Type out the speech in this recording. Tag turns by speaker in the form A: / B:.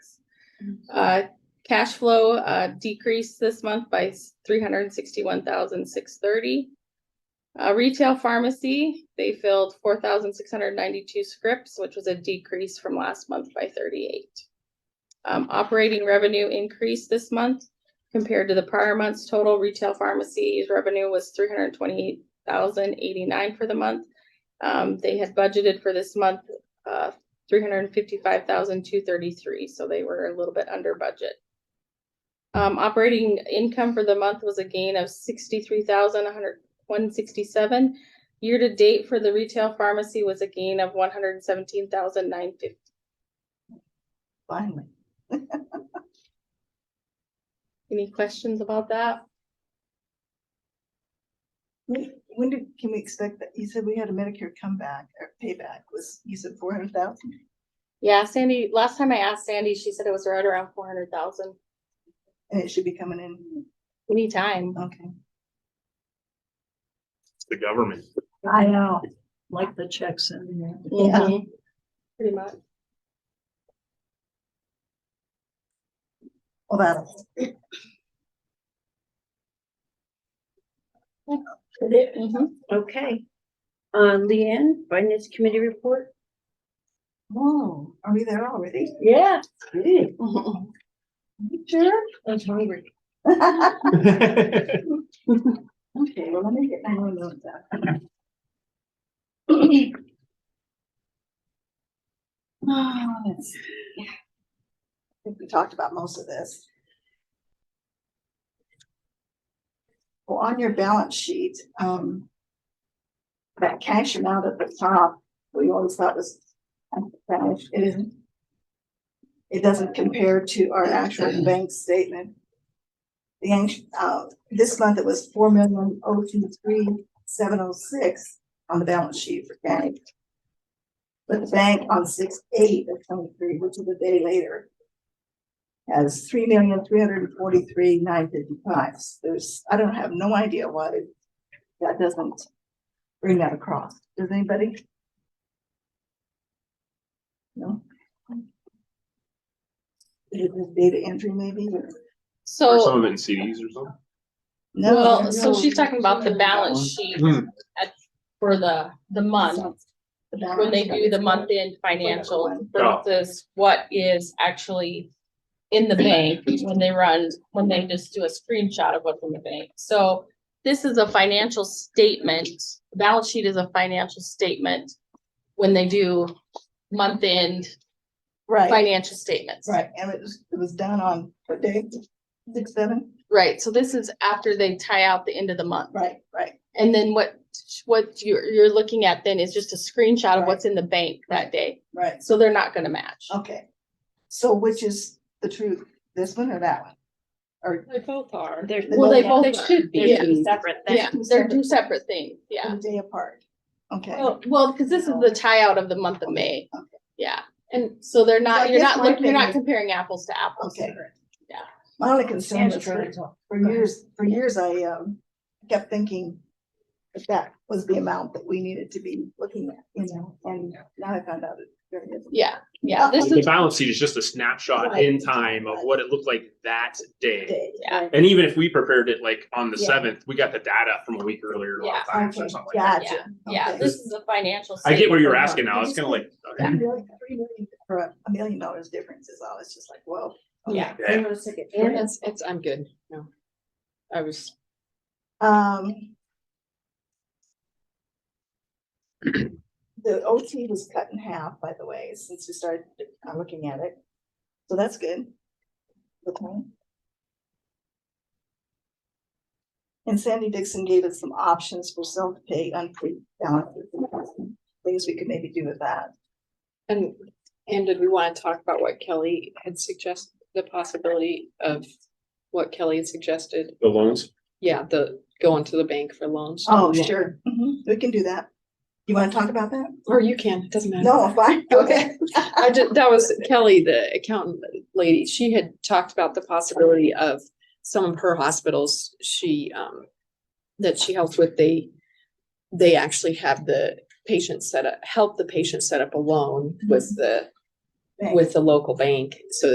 A: Uh, cash flow, uh, decreased this month by three hundred and sixty-one thousand, six thirty. Uh, retail pharmacy, they filled four thousand, six hundred and ninety-two scripts, which was a decrease from last month by thirty-eight. Um, operating revenue increased this month compared to the prior month's total. Retail pharmacy's revenue was three hundred and twenty-eight thousand, eighty-nine for the month. Um, they had budgeted for this month, uh, three hundred and fifty-five thousand, two thirty-three, so they were a little bit under budget. Um, operating income for the month was a gain of sixty-three thousand, one hundred, one sixty-seven. Year-to-date for the retail pharmacy was a gain of one hundred and seventeen thousand, nine fifty.
B: Finally.
A: Any questions about that?
B: When when did, can we expect that? You said we had a Medicare comeback or payback was, you said four hundred thousand?
A: Yeah, Sandy, last time I asked Sandy, she said it was right around four hundred thousand.
B: And it should be coming in.
A: Anytime.
C: Mm-hmm.
B: Okay.
D: the government.
C: I know, like the checks in there.
B: Yeah.
C: Mm-hmm.
A: Mhm. Pretty much.
B: Well, that's,
A: Mhm.
C: Okay. Uh, Leanne, Finance Committee report?
B: whoa, Oh, are we there already?
C: Yeah.
B: Sure.
C: I'm hungry.
B: Okay,
D: That's
B: well, let me get my own notes out. Oh, that's, yeah. I think we talked about most of this. Well, on your balance sheet, um, that cash amount at the top, we always thought was, uncash. it isn't. It doesn't compare to our actual bank statement. The, act- uh, this month it was four million oh two three seven oh six on the balance sheet for cash. But the bank on six eight of twenty-three, which is a day later, has three million three hundred and forty-three nine fifty-five. There's, I don't have no idea why that doesn't bring that across. Does anybody? No? Is it just data entry maybe or?
D: Or
A: So,
D: some of it in CDs or something.
B: No,
A: well,
B: no,
A: so she's talking about the balance sheet
D: Hmm.
A: at, for the, the month.
B: the
A: when they
B: balance
A: do the
B: sheet.
A: month-end financials
B: one.
D: Oh.
A: versus what is actually in the bank when they run, when they just do a screenshot of what's in the bank. So this is a financial statement, balance sheet is a financial statement when they do month-end
B: Right,
A: financial statements.
B: right. And it was, it was done on what day? Six, seven?
A: Right, so this is after they tie out the end of the month.
B: Right, right.
A: And then what, what you're, you're looking at then is just a screenshot of
B: Right.
A: what's in the bank that day.
B: Right.
A: So they're not gonna match.
B: Okay. So which is the truth, this one or that one? Or
E: They both are.
C: There's.
A: Well, they both
E: They
A: are.
E: should be.
A: Yeah.
C: They're two separate
A: Yeah,
C: things.
A: they're two separate things, yeah.
B: a day apart? Okay.
A: Well, well, because this is the tie out of the month of May.
B: Oh, Okay.
A: Yeah,
E: And
A: so they're
B: So I
A: not, you're
B: guess
A: not,
B: my
A: look- you're not
B: thing-
A: comparing apples to apples.
B: Okay.
A: Yeah.
B: My only concern
C: And
B: is
C: sure.
B: for, for years, for years I, um, kept thinking that that was the amount that we needed to be looking at, you know, and now I found out it there it isn't.
A: Yeah, yeah,
B: Uh,
A: this
D: The
A: is,
D: balance sheet is just a snapshot in time of what it looked like that day.
B: Day.
A: Yeah.
D: And even if we prepared it like on the
B: Yeah.
D: seventh, we got the data from a week earlier a lot of
A: Yeah.
D: times or
B: Okay,
D: something like that.
B: Gotcha.
A: yeah,
B: Okay.
A: this is a financial.
D: I get where
A: statement.
D: you're asking now. It's kind of like,
B: Three
D: okay.
B: million- three million For a a million dollars difference is all. It's just like, whoa. okay.
E: Yeah.
D: Yeah.
E: And it's, it's, I'm good. No. I was,
B: Um. The OT was cut in half, by the way, since we started uh, looking at it. So that's good. Okay. And Sandy Dixon gave us some options for self-pay unpaid balances. and Things we could maybe do with that.
E: and, and did we want to talk about what Kelly had suggested, the possibility of what Kelly had suggested?
D: The loans?
E: Yeah, the going to the bank for loans.
B: Oh, sure. Mhm, We can do that. You want to talk about that?
E: Or you can, it doesn't matter.
B: No, fine, Mm-hmm. okay.
E: I did, that was Kelly, the accountant lady. She had talked about the possibility of some of her hospitals, she, um, that she helps with, they, they actually have the patient
B: Mm-hmm.
E: set up, help the patient set up a loan with the,
B: Thanks.
E: with the local bank so